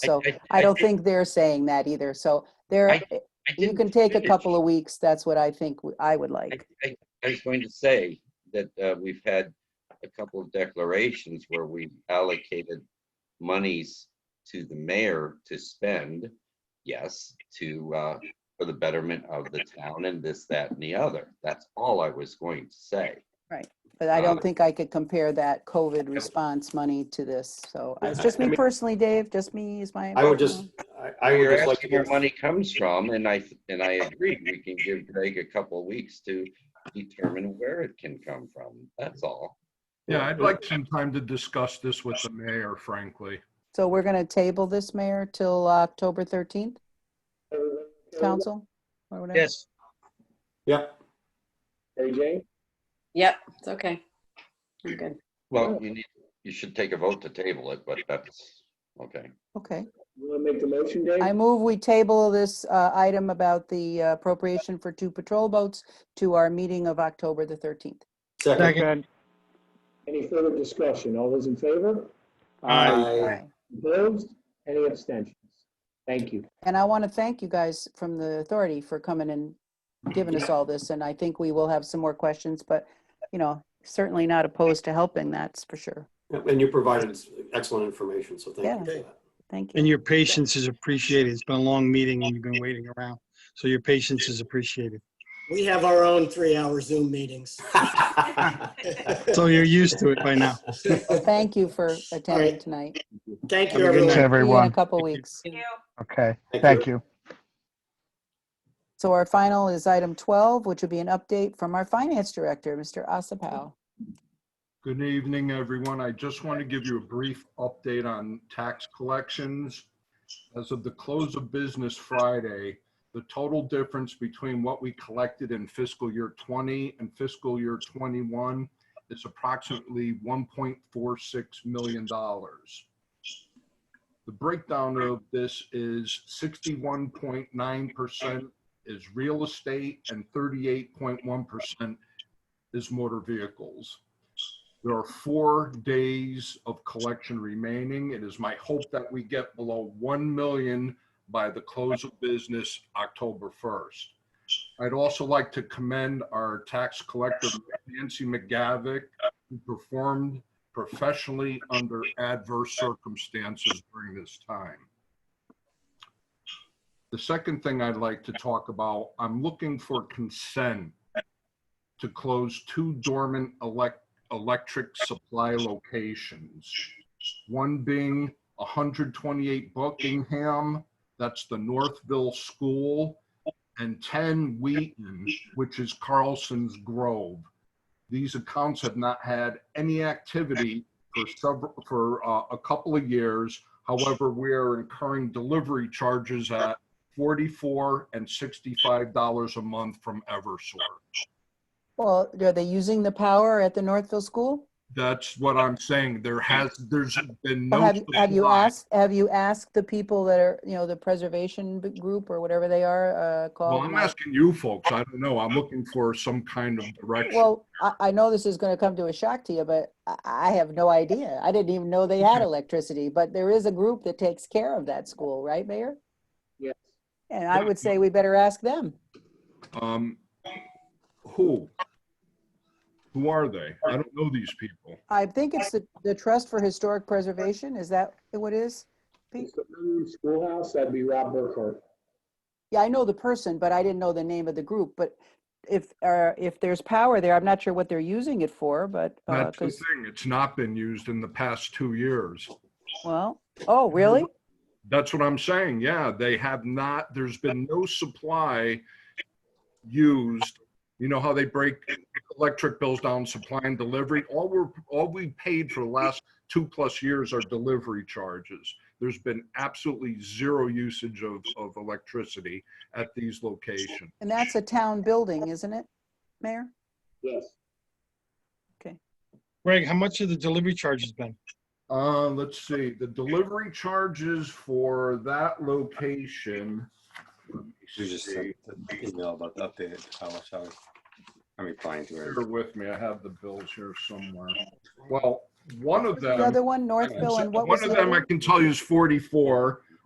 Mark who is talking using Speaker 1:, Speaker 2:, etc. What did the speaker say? Speaker 1: So
Speaker 2: I
Speaker 1: I don't
Speaker 2: did-
Speaker 1: think they're saying that either. So there, eh,
Speaker 2: I- I
Speaker 1: you
Speaker 2: didn't
Speaker 1: can take a
Speaker 2: finish.
Speaker 1: couple of weeks. That's what I think w- I would
Speaker 2: I,
Speaker 1: like.
Speaker 2: I- I was going to say that uh, we've had a couple of declarations where we allocated monies to the mayor to spend, yes, to, uh, for the betterment of the town and this, that, and the other. That's all I was going to say.
Speaker 1: But I
Speaker 2: Uh,
Speaker 1: don't think I could compare that COVID response money to this. So it's just
Speaker 3: I
Speaker 1: me
Speaker 3: mean-
Speaker 1: personally, Dave, just me is my.
Speaker 3: I would just,
Speaker 1: personal-
Speaker 3: I- I would
Speaker 2: You're
Speaker 3: just like to
Speaker 2: asking where
Speaker 3: give,
Speaker 2: money comes from, and I, and I agree, we can give Greg a couple of weeks to determine where it can come from. That's all.
Speaker 4: Yeah, I'd like some time to discuss this with the mayor, frankly.
Speaker 1: So we're going to table this, Mayor, till October 13th? Council? or whatever?
Speaker 5: Yes,
Speaker 3: yeah,
Speaker 6: AJ?
Speaker 7: Yep, it's okay. I'm good.
Speaker 2: Well, you need, you should take a vote to table it, but that's, okay.
Speaker 1: Okay.
Speaker 6: You want to make the motion, Dave?
Speaker 1: I move we table this uh, item about the uh, appropriation for two patrol boats to our meeting of October the 13th.
Speaker 3: second.
Speaker 5: second.
Speaker 6: Any further discussion? All those in favor?
Speaker 3: I
Speaker 6: Opposed? Any abstentions? Thank you.
Speaker 1: And I want to thank you guys from the authority for coming and giving us all this. And I think we will have some more questions, but, you know, certainly not opposed to helping, that's for sure.
Speaker 3: And you provided excellent information, so thank you for that.
Speaker 1: Thank
Speaker 5: And
Speaker 1: you.
Speaker 5: your patience is appreciated. It's been a long meeting and you've been waiting around. So your patience is appreciated.
Speaker 8: We have our own three-hour Zoom meetings.
Speaker 5: So you're used to it by now.
Speaker 1: Thank you for attending
Speaker 8: right.
Speaker 1: tonight. See
Speaker 8: Thank
Speaker 5: Have
Speaker 8: you,
Speaker 5: a good
Speaker 8: everyone.
Speaker 1: you In
Speaker 5: night.
Speaker 1: a
Speaker 9: everyone.
Speaker 1: couple weeks.
Speaker 9: Okay, thank you.
Speaker 1: So our final is item 12, which would be an update from our finance director, Mr. Asapow.
Speaker 4: Good evening, everyone. I just want to give you a brief update on tax collections. As of the close of business Friday, the total difference between what we collected in fiscal year 20 and fiscal year 21 is approximately $1.46 million. The breakdown of this is 61.9% is real estate and 38.1% is motor vehicles. There are four days of collection remaining. It is my hope that we get below 1 million by the close of business October 1st. I'd also like to commend our tax collector Nancy McGavick, who performed professionally under adverse circumstances during this time. The second thing I'd like to talk about, I'm looking for consent to close two dormant elect electric supply locations. One being 128 Buckingham, that's the Northville School, and 10 Wheaton, which is Carlson's Grove. These accounts have not had any activity for several, for uh, a couple of years. However, we are incurring delivery charges at 44 and $65 a month from Eversource.
Speaker 1: Well, are they using the power at the Northville School?
Speaker 4: That's what I'm saying. There has, there's been
Speaker 1: Or
Speaker 4: no.
Speaker 1: Have, have you
Speaker 4: supply.
Speaker 1: asked, have you asked the people that are, you know, the preservation b- group or whatever they are uh, called?
Speaker 4: Well, I'm asking you folks. I don't know. I'm looking for some kind of direction.
Speaker 1: Well, I, I know this is going to come to a shock to you, but I, I have no idea. I didn't even know they had electricity, but there is a group that takes care of that school, right, Mayor?
Speaker 6: Yes.
Speaker 1: And I
Speaker 4: Yeah.
Speaker 1: would say we better ask them.
Speaker 4: Um, who? Who are they? I don't know these people.
Speaker 1: I think it's the, the Trust for Historic Preservation. Is that what it is?
Speaker 6: It's the Moon Schoolhouse, that'd be Rob Burkhardt.
Speaker 1: Yeah, I know the person, but I didn't know the name of the group. But if, uh, if there's power there, I'm not sure what they're using it for, but, uh,
Speaker 4: That's the
Speaker 1: 'cause-
Speaker 4: thing. It's not been used in the past two years.
Speaker 1: well, oh, really?
Speaker 4: Mm-hmm. That's what I'm saying. Yeah, they have not, there's been no supply used. You know how they break electric bills down, supply and delivery? All we're, all we paid for the last two plus years are delivery charges. There's been absolutely zero usage of, of electricity at these locations.
Speaker 1: And that's a town building, isn't it, Mayor?
Speaker 6: Yes.
Speaker 5: Greg, how much of the delivery charge has been?
Speaker 4: Uh, let's see, the delivery charges for that location. let me
Speaker 10: You just
Speaker 4: see.
Speaker 10: sent an email about the updated, how much I was, I'm replying to
Speaker 4: Bear
Speaker 10: it.
Speaker 4: with me, I have the bills here somewhere. Well, one of
Speaker 1: The other
Speaker 4: them,
Speaker 1: one, Northville, and what was
Speaker 4: one
Speaker 1: the
Speaker 4: of
Speaker 1: other
Speaker 4: them I
Speaker 1: one?
Speaker 4: can tell you is 44,